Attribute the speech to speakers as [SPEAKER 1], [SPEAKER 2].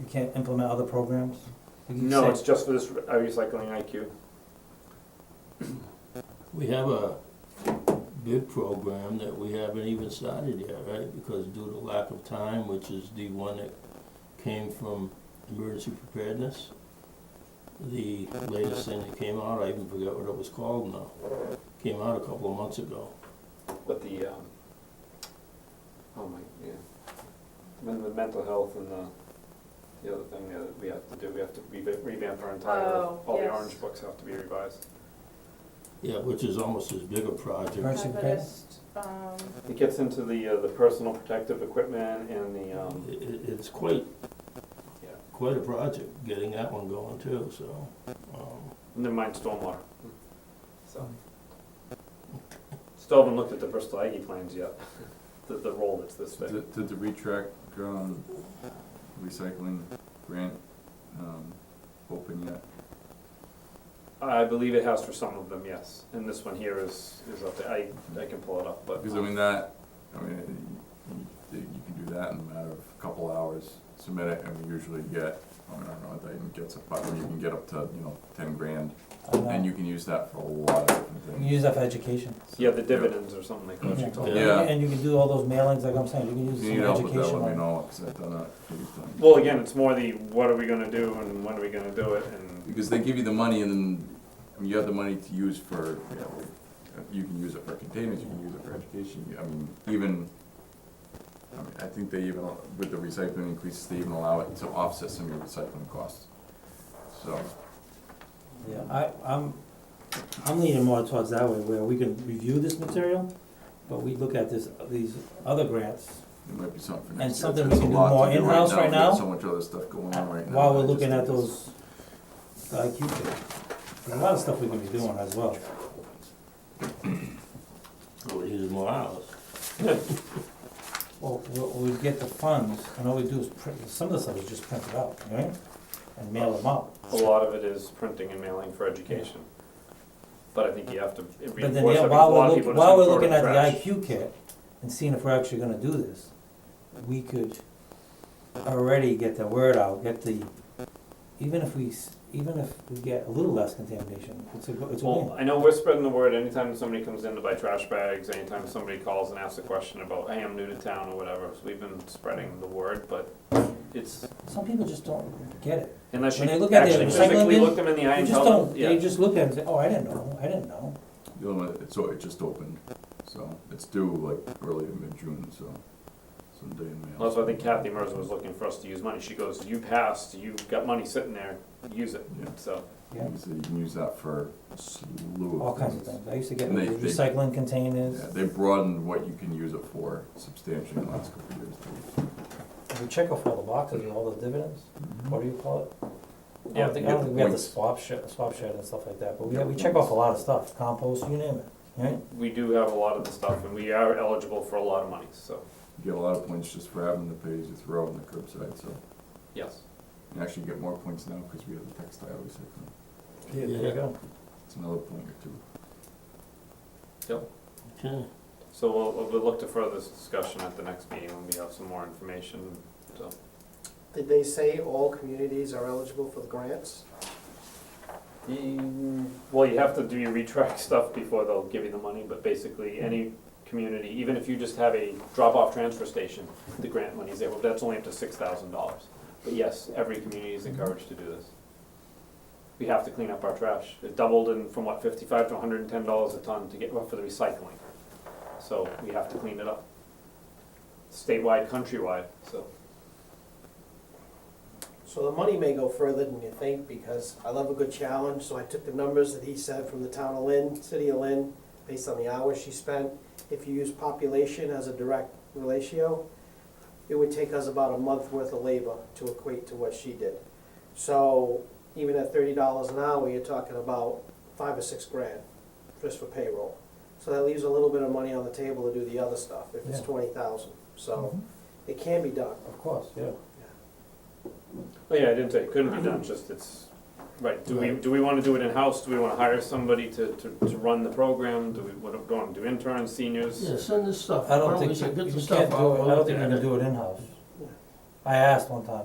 [SPEAKER 1] you can't implement other programs? You can
[SPEAKER 2] No,
[SPEAKER 1] say-
[SPEAKER 2] it's just for this uh, recycling IQ.
[SPEAKER 3] We have a bid program that we haven't even started yet, right? Because due to lack of time, which is the one that came from emergency preparedness. The latest thing that came out, I even forget what it was called now, came out a couple of months ago.
[SPEAKER 2] But the, um, oh my, yeah, then the mental health and the, the other thing that we have to do, we have to reva- revamp our entire,
[SPEAKER 4] Oh,
[SPEAKER 2] all the
[SPEAKER 4] yes.
[SPEAKER 2] orange books have to be revised.
[SPEAKER 3] Yeah, which is almost as big a project.
[SPEAKER 1] Emergency prepared?
[SPEAKER 4] Harvest, um,
[SPEAKER 2] It gets into the, uh, the personal protective equipment and the, um,
[SPEAKER 3] It, it- it's quite,
[SPEAKER 2] Yeah.
[SPEAKER 3] quite a project, getting that one going too, so, um,
[SPEAKER 2] never mind stormwater. So. Still haven't looked at the Bristol Aggie plans yet, the, the role that's this big.
[SPEAKER 5] Did, did the retract, um, recycling grant, um, open yet?
[SPEAKER 2] I believe it has for some of them, yes, and this one here is, is up there, I, I can pull it up, but. um,
[SPEAKER 5] Because I mean, that, I mean, you, you can do that in a matter of a couple hours, submit it, and we usually get, I mean, I don't know, that even gets up, but you can get up to, you know, ten grand,
[SPEAKER 1] I don't know.
[SPEAKER 5] and you can use that for a lot of different
[SPEAKER 1] You can
[SPEAKER 5] things.
[SPEAKER 1] use that for education.
[SPEAKER 2] Yeah, the dividends or something like that, she told me.
[SPEAKER 3] Yeah.
[SPEAKER 1] And you can do all those mailings, like I'm saying, you can
[SPEAKER 5] If
[SPEAKER 1] use
[SPEAKER 5] Oh, you need help
[SPEAKER 1] some
[SPEAKER 5] with that,
[SPEAKER 1] education
[SPEAKER 5] let
[SPEAKER 1] on
[SPEAKER 5] me know, because I've done that a few times.
[SPEAKER 2] Well, again, it's more the what are we gonna do and when are we gonna do it and
[SPEAKER 5] Because they give you the money and then, I mean, you have the money to use for, you know, you can use it for containers, you can use it for education, you- I mean, even, I mean, I think they even, with the recycling increases, they even allow it to offset some of your recycling costs. So,
[SPEAKER 1] Yeah, I, I'm, I'm leaning more towards that way, where we can review this material, but we look at this, these other grants
[SPEAKER 5] it might be something for
[SPEAKER 1] And
[SPEAKER 5] next year.
[SPEAKER 1] something we
[SPEAKER 5] It's a
[SPEAKER 1] can do
[SPEAKER 5] lot to
[SPEAKER 1] more
[SPEAKER 5] right
[SPEAKER 1] in-house
[SPEAKER 5] now.
[SPEAKER 1] right
[SPEAKER 5] We've got
[SPEAKER 1] now,
[SPEAKER 5] So much other stuff going on right now.
[SPEAKER 1] while
[SPEAKER 5] I
[SPEAKER 1] we're
[SPEAKER 5] just
[SPEAKER 1] looking at
[SPEAKER 5] think it's-
[SPEAKER 1] those, the IQ thing. There's A lot of stuff we can be doing as well.
[SPEAKER 3] it would use more hours.
[SPEAKER 1] Well, we'll, we'll get the funds, and all we do is print, some of the stuff is just print it out, right? And mail them out.
[SPEAKER 2] a lot of it is printing and mailing for education. But I think you have to reinforce
[SPEAKER 1] But
[SPEAKER 2] that
[SPEAKER 1] then,
[SPEAKER 2] because
[SPEAKER 1] yeah,
[SPEAKER 2] a
[SPEAKER 1] while
[SPEAKER 2] lot
[SPEAKER 1] we're
[SPEAKER 2] of
[SPEAKER 1] looking,
[SPEAKER 2] people just
[SPEAKER 1] while we're
[SPEAKER 2] don't throw it in
[SPEAKER 1] looking
[SPEAKER 2] the
[SPEAKER 1] at
[SPEAKER 2] trash.
[SPEAKER 1] the IQ kit and seeing if we're actually gonna do this, we could already get the word out, get the, even if we, s- even if we get a little less contamination, it's a, go- it's a
[SPEAKER 2] Well,
[SPEAKER 1] win.
[SPEAKER 2] I know we're spreading the word anytime somebody comes in to buy trash bags, anytime somebody calls and asks a question about, hey, I'm new to town or whatever, so we've been spreading the word, but it's,
[SPEAKER 1] Some people just don't get it.
[SPEAKER 2] unless you
[SPEAKER 1] When they look at the
[SPEAKER 2] actually
[SPEAKER 1] recycling
[SPEAKER 2] physically
[SPEAKER 1] bin,
[SPEAKER 2] look them in the eye
[SPEAKER 1] They
[SPEAKER 2] and
[SPEAKER 1] just
[SPEAKER 2] tell them,
[SPEAKER 1] don't,
[SPEAKER 2] yeah.
[SPEAKER 1] they just look at it and say, oh, I didn't know, I didn't know.
[SPEAKER 5] You know, it- so it just opened, so it's due like early to mid-June, so someday in May.
[SPEAKER 2] Also, I think Kathy Merz was looking for us to use money, she goes, you passed, you've got money sitting there, use it,
[SPEAKER 5] Yeah.
[SPEAKER 2] so.
[SPEAKER 1] Yeah.
[SPEAKER 5] So you can use that for a slew of
[SPEAKER 1] All kinds of things. I used to get
[SPEAKER 5] And they-
[SPEAKER 1] the
[SPEAKER 5] they-
[SPEAKER 1] recycling containers.
[SPEAKER 5] Yeah, they broadened what you can use it for substantially in the last couple of years. too.
[SPEAKER 1] We check off all the boxes and all the dividends. What do you call it? I
[SPEAKER 2] Yeah,
[SPEAKER 1] don't think,
[SPEAKER 5] you
[SPEAKER 1] I don't
[SPEAKER 5] get
[SPEAKER 1] think we have the
[SPEAKER 5] points.
[SPEAKER 1] swap shed, swap shed and stuff like that, but we,
[SPEAKER 5] Yeah,
[SPEAKER 1] we check off a lot of stuff, compost, you name it, right?
[SPEAKER 2] We do have a lot of the stuff, and we are eligible for a lot of money, so,
[SPEAKER 5] You get a lot of points just for having the page you throw on the curbside, so
[SPEAKER 2] yes.
[SPEAKER 5] you actually get more points now because we have the textile recycling.
[SPEAKER 1] Yeah,
[SPEAKER 3] there you
[SPEAKER 1] go.
[SPEAKER 5] It's another point or two.
[SPEAKER 3] Okay.
[SPEAKER 2] So we'll, we'll- we'll look to further this discussion at the next meeting when we have some more information, so.
[SPEAKER 6] Did they say all communities are eligible for the grants?
[SPEAKER 2] Mm, Well, you have to do your retract stuff before they'll give you the money, but basically, any community, even if you just have a drop-off transfer station, the grant money's there, well, that's only up to six thousand dollars. But yes, every community is encouraged to do this. We have to clean up our trash. It doubled in, from what, fifty-five to hundred and ten dollars a ton to get, well, for the recycling. So we have to clean it up. Statewide, countrywide, so.
[SPEAKER 6] So the money may go further than you think, because I love a good challenge, so I took the numbers that he said from the town of Lynn, city of Lynn, based on the hours she spent. If you use population as a direct ratio, it would take us about a month worth of labor to equate to what she did. So even at thirty dollars an hour, you're talking about five or six grand just for payroll. So that leaves a little bit of money on the table to do the other stuff, if it's
[SPEAKER 1] Yeah.
[SPEAKER 6] twenty thousand, so it can be done.
[SPEAKER 1] Of course, yeah.
[SPEAKER 2] Oh, yeah, I didn't say it couldn't be done, just it's, right, do we,
[SPEAKER 1] Right.
[SPEAKER 2] do we wanna do it in-house, do we wanna hire somebody to, to, to run the program, do we, what, do we wanna do interns, seniors?
[SPEAKER 3] Yeah, send this stuff.
[SPEAKER 1] I
[SPEAKER 3] Why
[SPEAKER 1] don't
[SPEAKER 3] we
[SPEAKER 1] think,
[SPEAKER 3] say,
[SPEAKER 1] you
[SPEAKER 3] get
[SPEAKER 1] you
[SPEAKER 3] the
[SPEAKER 1] can't
[SPEAKER 3] stuff
[SPEAKER 1] do it, I
[SPEAKER 3] out, we'll
[SPEAKER 1] don't
[SPEAKER 3] look
[SPEAKER 1] think you
[SPEAKER 3] at
[SPEAKER 1] can
[SPEAKER 3] it.
[SPEAKER 1] do it in-house.
[SPEAKER 6] Yeah.
[SPEAKER 1] I asked one time,